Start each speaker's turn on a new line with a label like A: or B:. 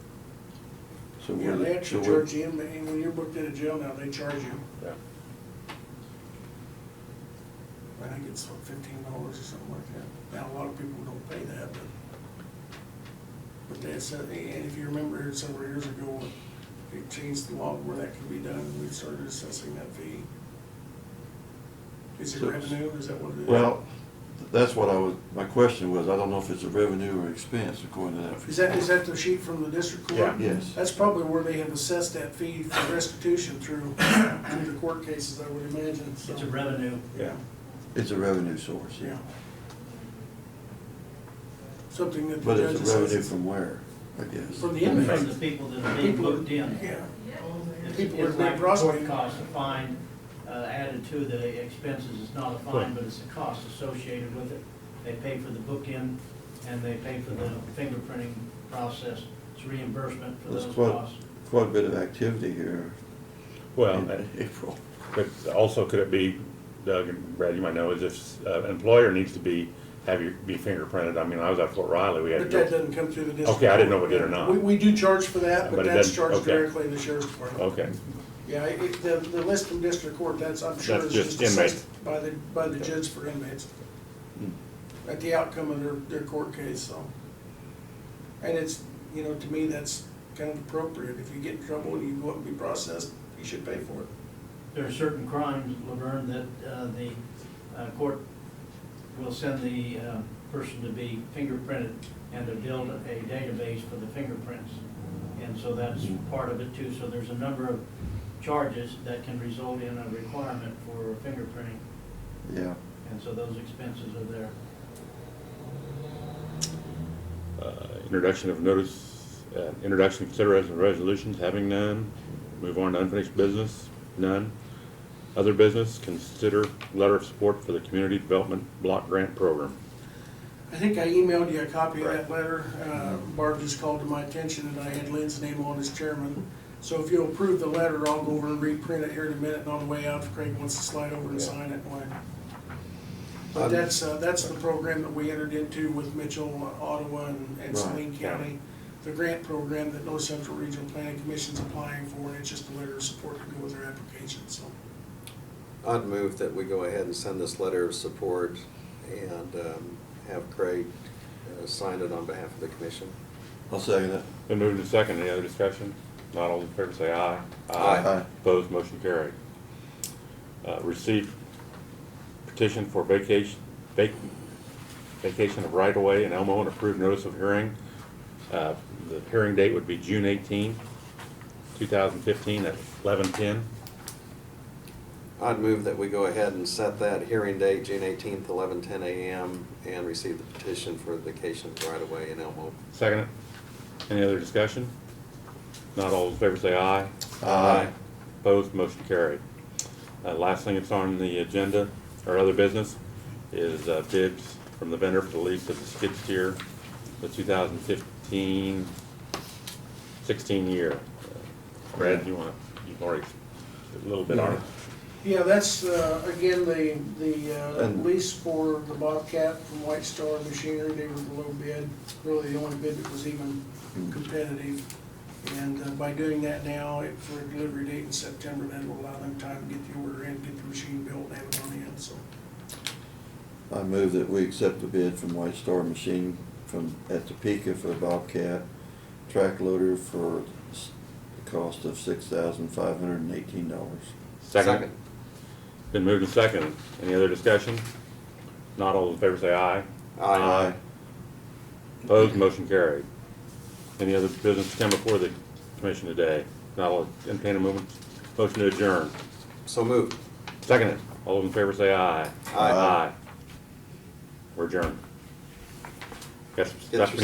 A: So
B: Yeah,
A: we're,
B: they
A: so
B: actually
A: we're,
B: charge you, and when you're booked in a jail now, they charge you.
A: Yeah.
B: I think it's what, fifteen dollars or something like that. Now, a lot of people don't pay that, but, but they said, and if you remember here several years ago, they changed the law where that could be done, and we started assessing that fee. Is it
A: So-
B: revenue, is that what it is?
A: well, that's what I was, my question was, I don't know if it's a revenue or expense according to that.
B: Is that, is that the sheet from the district court?
C: Yeah.
A: Yes.
B: That's probably where they have assessed that fee for restitution through, through the court cases, I would imagine, so.
D: It's a revenue.
B: Yeah,
A: It's a revenue source,
B: yeah.
A: yeah.
B: Something that the
A: But
B: judge
A: it's a revenue
B: assesses.
A: from where, I guess?
B: From the
D: From
B: inmates.
D: the people that are being
B: People-
D: booked in.
B: Yeah,
D: It's-
B: people are
D: It's
B: being
D: like the
B: prosecuted.
D: court cost, a fine uh, added to the expenses, it's not a fine, but it's a cost associated with it. They pay for the book-in, and they pay for the fingerprinting process, it's reimbursement for
A: There's
D: those
A: quite,
D: costs.
A: quite a bit of activity here
C: Well, uh,
A: in April.
C: but also could it be, Doug and Brad, you might know, is if uh, an employer needs to be, have you, be fingerprinted, I mean, I was at Fort Riley, we had to
B: but that
C: go.
B: doesn't come through the district.
C: Okay, I didn't know
B: court.
C: we did or not.
B: We, we do charge for that, but
C: But it
B: that's
C: doesn't-
B: charged
C: okay.
B: directly to the sheriff's department.
C: Okay,
B: Yeah, it, the, the list from district court, that's, I'm sure
C: That's
B: is
C: just
B: just assessed
C: inmates.
B: by the, by the judge for inmates. At the outcome of their, their court case, so. And it's, you know, to me, that's kind of appropriate. If you get in trouble and you go up and be processed, you should pay for it.
D: There are certain crimes, Laverne, that uh, the uh, court will send the uh, person to be fingerprinted and to build a database for the fingerprints. And so that's part of it too. So there's a number of charges that can result in a requirement for fingerprinting.
A: Yeah,
D: And so those expenses are there.
C: uh, introduction of notice, uh, introduction, consideration of resolutions, having none, move on to unfinished business, none. Other business, consider letter of support for the community development block grant program.
B: I think I emailed you a copy of that
C: Right. Mm-hmm.
B: letter. Uh, Barb just called to my attention and I had Lynn's name on as chairman. So if you'll approve the letter, I'll go over and reprint it here in a minute and on the way out, if Craig wants to slide over and
C: Yeah.
B: sign it. why? But that's, uh, that's the program that we entered into with Mitchell, uh, Ottawa and and Saline
A: Right,
C: yeah.
B: County. The grant program that North Central Regional Planning Commission's applying for and it's just a letter of support to go with their application, so.
E: I'd move that we go ahead and send this letter of support and um, have Craig uh, sign it on behalf of the commission.
A: I'll second that.
C: Been moved to second, any other discussion? Not all in favor, say aye.
A: Aye.
C: Opposed, motion carried. Uh, receive petition for vacation, vac- vacation of right-of-way in Elmo and approved notice of hearing. Uh, the hearing date would be June 18, thousand fifteen, at eleven-ten.
E: I'd move that we go ahead and set that hearing date, June 18th, 11:10 a.m., and receive the petition for vacation right away in Elmo.
C: Second it. Any other discussion? Not all in favor, say aye.
A: Aye.
C: Opposed, motion carried. Uh, Last thing that's on the agenda, or other business, is uh, bids from the vendor for the lease of the skid steer, the 2015, 16 year. Uh, Brad, you want, to you've already, a little bit on it.
B: Yeah, that's, uh, again, the, the uh,
A: And-
B: lease for the Bobcat from White Star Machinery, they were the low bid, really the only bid that was even competitive. And uh, by doing that now, it- for a delivery date in September, that will allow them time to get the order in, get the machine built, and have it on hand, so.
A: I move that we accept the bid from White Star Machine from, at Topeka for the Bobcat track loader for s- the cost of six thousand five hundred and eighteen dollars.
C: Second. Been moved and second. Any other discussion? Not all in favor, say aye.
E: Aye.
C: Opposed, motion carried. Any other business to come before the commission today? Not all, entertain a movement, motion to adjourn.
E: So moved.
C: Second it. All those in favor say aye.
E: Aye.
C: We're adjourned. Got some
E: Get
C: stuff we
E: your